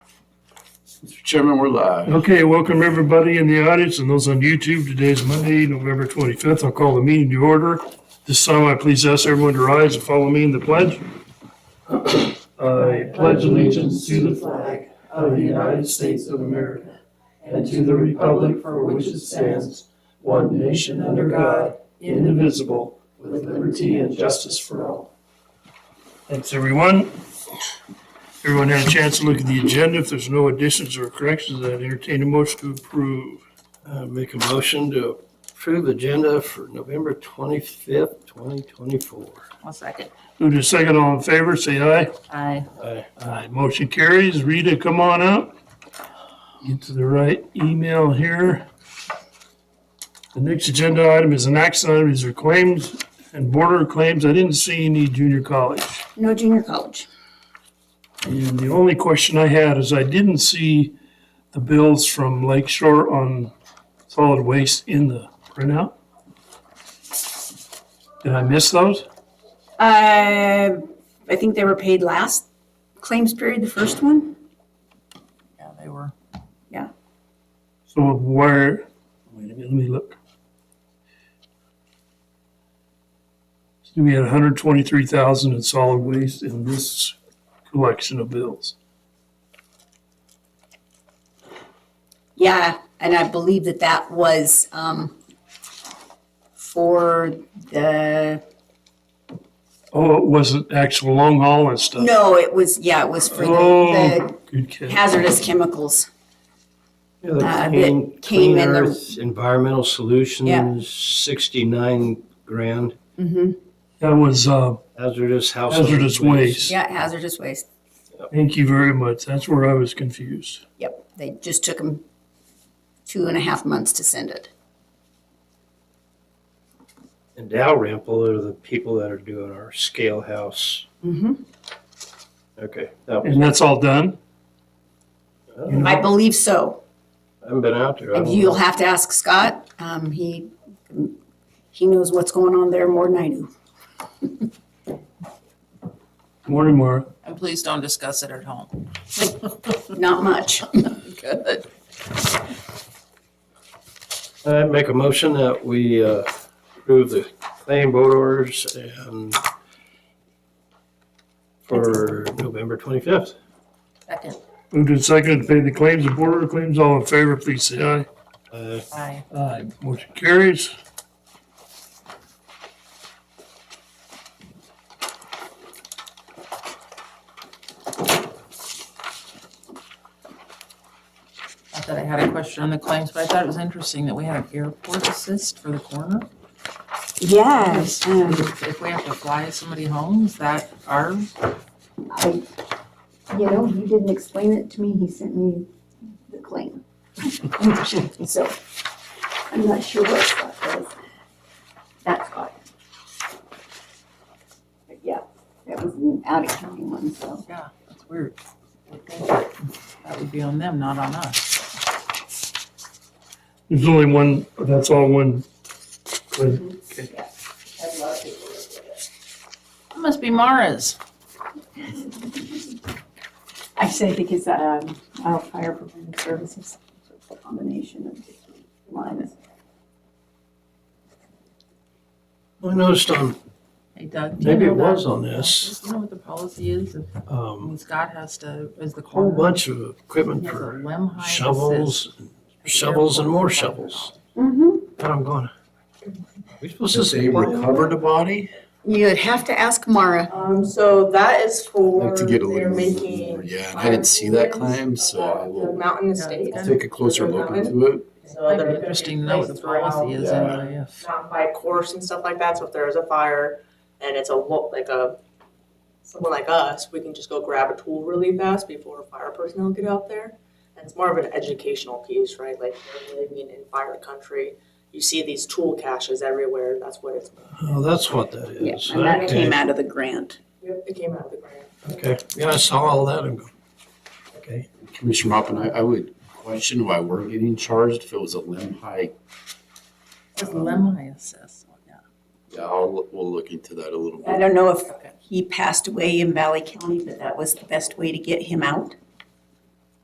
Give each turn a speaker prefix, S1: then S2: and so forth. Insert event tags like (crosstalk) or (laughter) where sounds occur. S1: Mr. Chairman, we're live.
S2: Uh, Okay, welcome everybody in the audience and those on YouTube. Today is Monday, November 25th. I'll call the meeting to order. This time I please ask everyone to rise and follow me in the pledge. (clears throat) I pledge allegiance to the flag of the United States of America and to the republic for which it stands, one nation under God, indivisible, with liberty and justice for all. Thanks, everyone. Everyone had a chance to look at the agenda. If there's no additions or corrections, I'd entertain a motion to approve.
S3: Uh, Make a motion to approve agenda for November 25th, 2024.
S4: One second.
S2: Move to second, all in favor, say aye.
S4: Aye.
S2: Aye. Motion carries. Rita, come on up. Get to the right email here. The next agenda item is an action item, is there claims and border claims. I didn't see any junior college.
S5: No junior college.
S2: And the only question I had is I didn't see the bills from Lake Shore on solid waste in the printout. Did I miss those?
S5: Uh, I think they were paid last claims period, the first one.
S4: Yeah, they were.
S2: So where, wait a minute, let me look. So We had hundred twenty-three thousand in solid waste in this collection of bills.
S5: Yeah, and I believe that that was, um, for the,
S2: Oh, it wasn't actual long haul and stuff?
S5: no, it was, yeah, it was for the
S2: Oh, good catch.
S5: the hazardous chemicals.
S3: Yeah, the
S5: Uh,
S3: Clean-
S5: that came
S3: Clean
S5: in the-
S3: Earth Environmental Solutions, 69 grand
S5: Mm-hmm.
S2: That was, uh,
S3: hazardous household.
S2: hazardous waste.
S5: Yeah, hazardous waste.
S2: Thank you very much. That's where I was confused.
S5: Yep, they just took them two and a half months to send it.
S3: And Dalrymple are the people that are doing our scale house.
S5: Mm-hmm.
S3: Okay, that was,
S2: And that's all done? You
S3: I
S5: I
S2: know,
S5: believe so.
S3: haven't been out there. I
S5: And
S3: don't
S5: you'll
S3: know.
S5: have to ask Scott. Um, he, he knows what's going on there more than I do.
S2: Morning, Mara.
S4: And please don't discuss it at home.
S5: Not much.
S4: Good.
S3: I make a motion that we uh, approve the claim board orders and for November 25th.
S4: Second.
S2: Moved and seconded to pay the claims and border claims. All in favor, please say aye.
S3: Uh,
S4: Aye.
S2: Aye. Motion carries.
S4: I thought I had a question on the claims, but I thought it was interesting that we had an airport assist for the coroner.
S5: Yes. um,
S4: If we have to fly somebody home, is that our,
S5: I, you know, he didn't explain it to me. He sent me the claim. (laughs) So I'm not sure what Scott does. That's Scott. But yeah, that was an out of county one, so.
S4: yeah, that's weird. I think That would be on them, not on us.
S2: There's only one, that's all one. claim.
S4: That must be Mara's.
S5: Actually, I think it's, um, wildfire prevention services, combination of different lines.
S3: I noticed on,
S4: Hey Doug. do you
S3: maybe it
S4: know
S3: was
S4: that-
S3: on this,
S4: Do you know what the policy is? If-
S3: um,
S4: When Scott has to, is the
S3: a whole
S4: coroner.
S3: bunch of equipment
S4: he has a
S3: for
S4: limb height assist
S3: shovels,
S4: at the
S3: shovels and
S4: airport.
S3: more shovels.
S5: Mm-hmm.
S3: And I'm going, are we supposed to
S1: Does
S3: say
S1: he recover the body?
S5: You'd have to ask Mara.
S6: Um, so that is
S1: I'd
S6: for,
S1: like to get a
S6: they're
S1: little more.
S6: making.
S1: Yeah, and I didn't see that claim, so I
S6: The
S1: will
S6: mountain
S4: Yeah,
S6: estate.
S4: it's
S1: take a closer look into it.
S6: So
S4: Might
S6: they're
S4: be
S6: gonna be
S4: interesting to know what the
S6: placed around
S4: policy is
S1: Yeah.
S4: anyway, if.
S6: Mountain bike course and stuff like that, so if there is a fire and it's a, lo- like a, someone like us, we can just go grab a tool really fast before fire personnel get out there. And it's more of an educational piece, right? Like, we're living in fire country, you see these tool caches everywhere, that's what it's,
S3: oh, that's what that
S5: Yeah,
S3: is.
S5: and that
S3: Okay,
S5: came out of the grant.
S6: it came out of the grant.
S3: Okay, yeah, I saw all that and go, okay.
S1: Commissioner Mopin, I, I would question why we're getting charged if it was a limb hike.
S4: It's limb height assist, yeah.
S1: Yeah, I'll, look- we'll look into that a little
S5: I
S1: bit.
S5: don't know if
S4: Okay.
S5: he passed away in Valley County, but that was the best way to get him out.